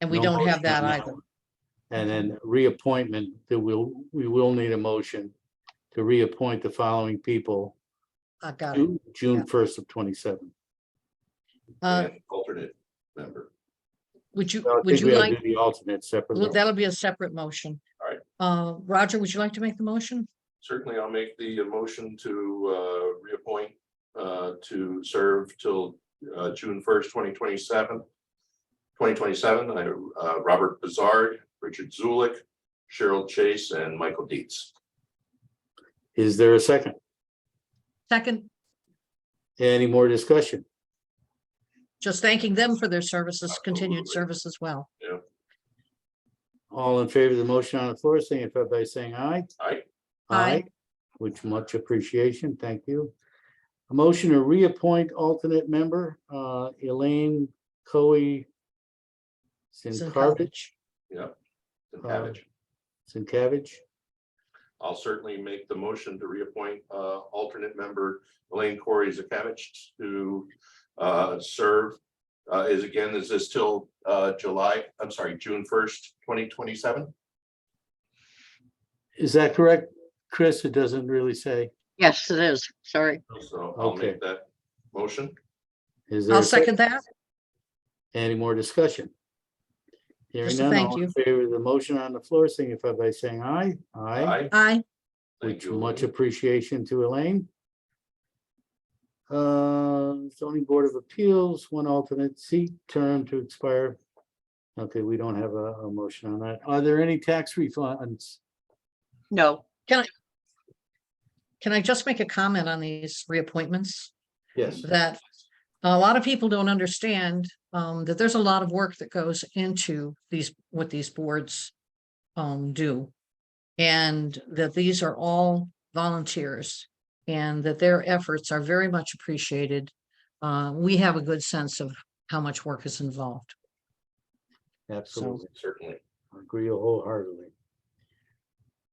And we No don't have motion, that no. either. And then reappointment, there will, we will need a motion to reappoint the following people I got it. Ju- June first of twenty-seven. Uh, and Alternate member. would you, So I would think we you ought to like, do the alternate well, separately. that'll be a separate motion. All right. Uh, Roger, would you like to make the motion? Certainly, I'll make the motion to uh, reappoint uh, to serve till uh, June first, twenty twenty-seven. Twenty twenty-seven, I, uh, Robert Bizarre, Richard Zulik, Cheryl Chase, and Michael Dietz. Is there a second? Second, Any more discussion? just thanking them for their services, continued Absolutely. service as well. All in favor of the motion on the floor, signify by saying aye. Aye. Aye. Which much appreciation, thank you. A motion to reappoint alternate member, uh, Elaine Coe Sincarvich, Sinkovich. and Pavich. Sinkavich. I'll certainly make the motion to reappoint uh, alternate member Elaine Corey Zakavich to uh, serve. uh, Is again, is this till uh, July, I'm sorry, June first, twenty twenty-seven? Is that correct, Chris? It doesn't really say. Yes, it is. Sorry. So I'll Okay. make that motion. Is there I'll a sec- second that. Any more discussion? Hearing Just a none, thank all you. in favor of the motion on the floor, signify by saying aye. Aye. Aye. Aye. Thank Which you. much Elaine. appreciation to Elaine. Uh, zoning board of appeals, one alternate seat term to expire. Okay, we don't have a, a motion on that. Are there any tax refunds? No. Can I just make a comment on these reappointments? Yes. That a lot of people don't understand um, that there's a lot of work that goes into these, what these boards um, do. And that these are all volunteers and that their efforts are very much appreciated. Uh, We have a good sense of how much work is involved. Absolutely, Certainly. I agree wholeheartedly.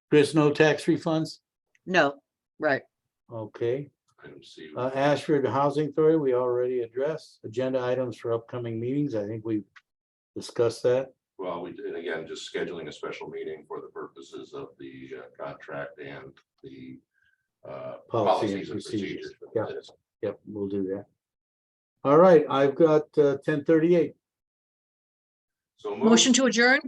Chris, no tax refunds? No. Right. Okay. Item C. Uh, Ashford Housing Authority, we already addressed. Agenda items for upcoming meetings, I think we discussed that. Well, we did, again, just scheduling a special meeting for the purposes of the uh, contract and the uh, Policy and policies and procedures. procedures. Yeah. Yep, we'll do that. All right, I've got uh, ten thirty-eight. So moved. Motion to adjourn?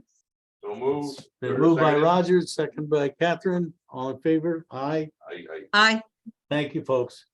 So moved. Been moved by Seconded. Rogers, second by Catherine, all in favor? Aye. I, I Aye. Thank you, folks.